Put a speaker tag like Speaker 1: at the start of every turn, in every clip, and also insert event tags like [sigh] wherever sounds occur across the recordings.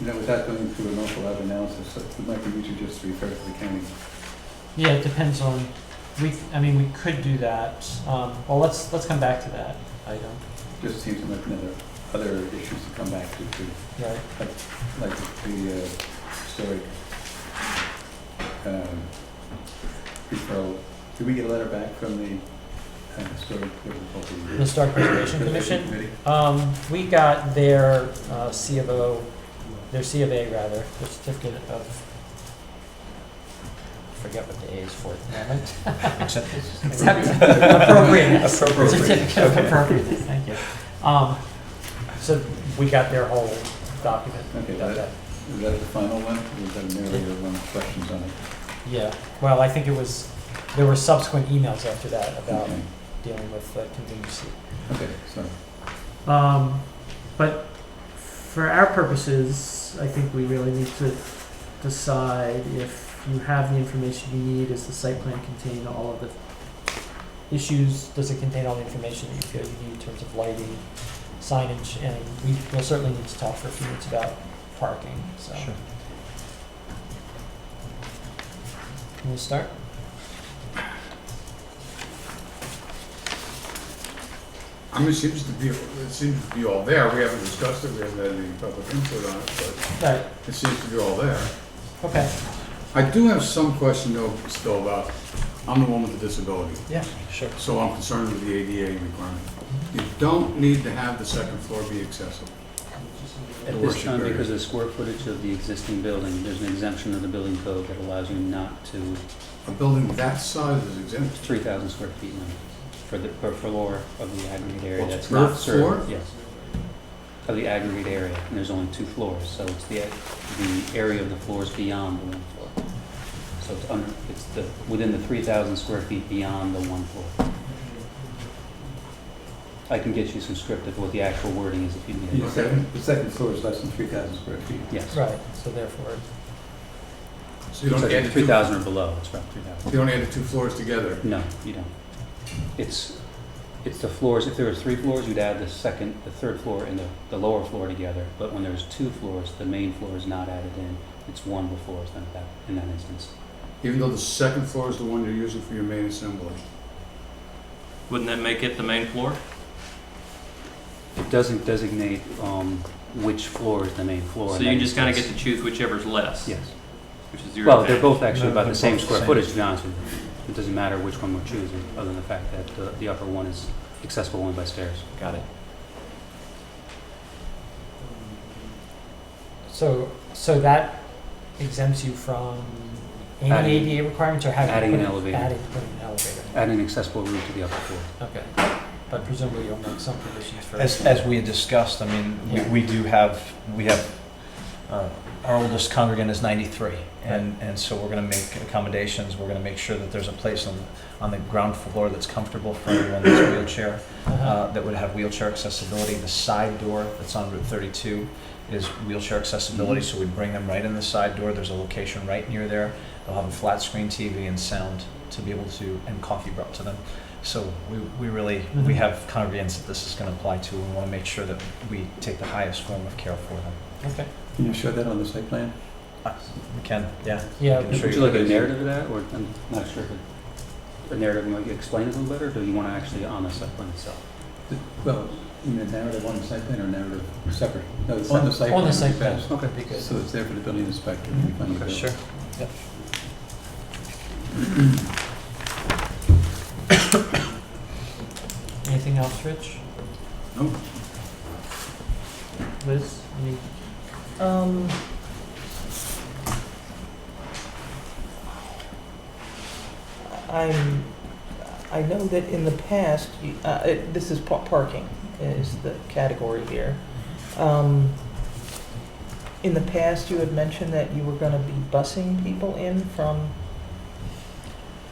Speaker 1: You know, without going through an awful lot of analysis, it might be easier just to refer to the county.
Speaker 2: Yeah, it depends on, we, I mean, we could do that, um, well, let's, let's come back to that item,
Speaker 1: Just seems like another, other issues to come back to, too,
Speaker 2: right?
Speaker 1: like the uh, historic um, referral. Did we get a letter back from the uh, historic?
Speaker 2: The Historic Preservation Commission, um, we got their, uh, C of O, their C of A rather, their certificate of, forget what the A is for at the moment.
Speaker 1: Acceptance?
Speaker 2: [laughs] Accept- Appropriateness.
Speaker 1: Appropriateness,
Speaker 2: Certificate of
Speaker 1: okay.
Speaker 2: appropriateness, thank you. Um, so we got their whole document.
Speaker 1: Okay,
Speaker 2: Got that.
Speaker 1: that- is that the final one? Or is that merely one of the questions on it?
Speaker 2: Yeah, well, I think it was, there were subsequent emails after that about
Speaker 1: Okay.
Speaker 2: dealing with uh, contingency.
Speaker 1: Okay, so,
Speaker 3: Um, but for our purposes, I think we really need to decide if you have the information you need. Is the site plan contain all of the
Speaker 2: Issues, does it contain all the information that you feel you need in terms of lighting, signage, and we will certainly need to talk for a few minutes about parking, so.
Speaker 4: Sure.
Speaker 2: Can we start?
Speaker 5: I mean, it seems to be, it seems to be all there. We haven't discussed it, we haven't had any public input on it, but
Speaker 2: Right,
Speaker 5: it seems to be all there.
Speaker 2: okay,
Speaker 5: I do have some question though, still about, I'm the one with the disability,
Speaker 2: yeah, sure.
Speaker 5: so I'm concerned with the ADA requirement. You don't need to have the second floor be accessible.
Speaker 4: At
Speaker 5: Worship
Speaker 4: this time,
Speaker 5: area.
Speaker 4: because of the square footage of the existing building, there's an exemption in the building code that allows you not to,
Speaker 5: A building that size is exempt.
Speaker 4: three thousand square feet limit for the, per floor of the aggregate area
Speaker 5: Well,
Speaker 4: that's
Speaker 5: per
Speaker 4: not served.
Speaker 5: floor?
Speaker 4: Yes. Of the aggregate area, and there's only two floors, so it's the, the area of the floors beyond the one floor. So it's under, it's the, within the three thousand square feet beyond the one floor. I can get you some script of what the actual wording is if you need
Speaker 1: the
Speaker 4: it.
Speaker 5: Okay.
Speaker 1: second, the second floor is less than three thousand square feet.
Speaker 4: Yes.
Speaker 2: Right, so therefore,
Speaker 5: So you don't add the
Speaker 4: Three
Speaker 5: two,
Speaker 4: thousand or below, it's about three thousand.
Speaker 5: you don't add the two floors together.
Speaker 4: No, you don't. It's, it's the floors, if there were three floors, you'd add the second, the third floor and the, the lower floor together. But when there's two floors, the main floor is not added in, it's one before it's done that, in that instance.
Speaker 5: Even though the second floor is the one you're using for your main assembly.
Speaker 6: Wouldn't that make it the main floor?
Speaker 4: It doesn't designate, um, which floor is the main floor.
Speaker 6: So
Speaker 4: in
Speaker 6: you
Speaker 4: that
Speaker 6: just kind of get
Speaker 4: instance.
Speaker 6: to choose whichever's less,
Speaker 4: Yes.
Speaker 6: which is your
Speaker 4: Well, they're
Speaker 6: advantage.
Speaker 4: both actually
Speaker 3: No,
Speaker 4: about
Speaker 3: they're
Speaker 4: the same
Speaker 3: both the
Speaker 4: square
Speaker 3: same.
Speaker 4: footage, to be honest with you. It doesn't matter which one we're choosing, other than the fact that the, the upper one is accessible only by stairs.
Speaker 6: Got it.
Speaker 2: so, so that exempts you from any
Speaker 4: Adding-
Speaker 2: ADA requirements or having. to
Speaker 4: adding an
Speaker 2: put
Speaker 4: elevator.
Speaker 2: Adding, putting an elevator.
Speaker 4: Add an accessible roof to the upper floor.
Speaker 2: Okay, but presumably you'll make some provisions for.
Speaker 7: As, as we had discussed, I mean, we,
Speaker 2: Yeah.
Speaker 7: we do have, we have, uh, our oldest congregant is 93. And, and so we're going to make accommodations. We're going to make sure that there's a place on, on the ground floor that's comfortable for everyone that's wheelchair,
Speaker 2: Uh-huh.
Speaker 7: uh, that would have wheelchair accessibility. The side door that's on Route 32 is wheelchair accessibility, so we bring them right in the side door. There's a location right near there. They'll have a flat screen TV and sound to be able to, and coffee brought to them. So we, we really, we
Speaker 2: Mhm.
Speaker 7: have congregants that this is going to apply to, and want to make sure that we take the highest form of care for them. Uh,
Speaker 2: Okay,
Speaker 1: Can you show that on the site plan?
Speaker 7: We can, yeah.
Speaker 2: yeah,
Speaker 7: Can
Speaker 4: Would
Speaker 7: show
Speaker 4: you
Speaker 7: you
Speaker 4: like a
Speaker 7: guys.
Speaker 4: narrative of that, or, I'm not sure, but a narrative might explain it a little better, or do you want to actually on the site plan itself?
Speaker 1: The- Well, you mean narrative on the site plan or narrative separate? No, it's on the site plan.
Speaker 2: on the
Speaker 1: would be
Speaker 2: site plan,
Speaker 1: best.
Speaker 4: Okay.
Speaker 2: would be good.
Speaker 1: So it's there for the building inspector.
Speaker 7: Mm-hmm.
Speaker 1: when you find the building.
Speaker 2: Anything else, Rich?
Speaker 5: No.
Speaker 2: Liz, any?
Speaker 3: Um. I'm, I know that in the past, you- uh, it- this is pa- parking is the category here. Um, In the past, you had mentioned that you were gonna be busing people in from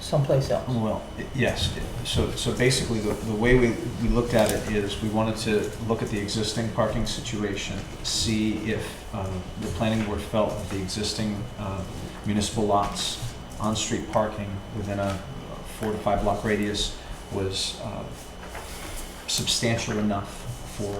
Speaker 3: someplace else.
Speaker 7: Well, i- yes, i- so, so basically, the, the way we, we looked at it is, we wanted to look at the existing parking situation, see if uh, the planning board felt that the existing uh, municipal lots, on-street parking within a four to five block radius was uh, substantial enough for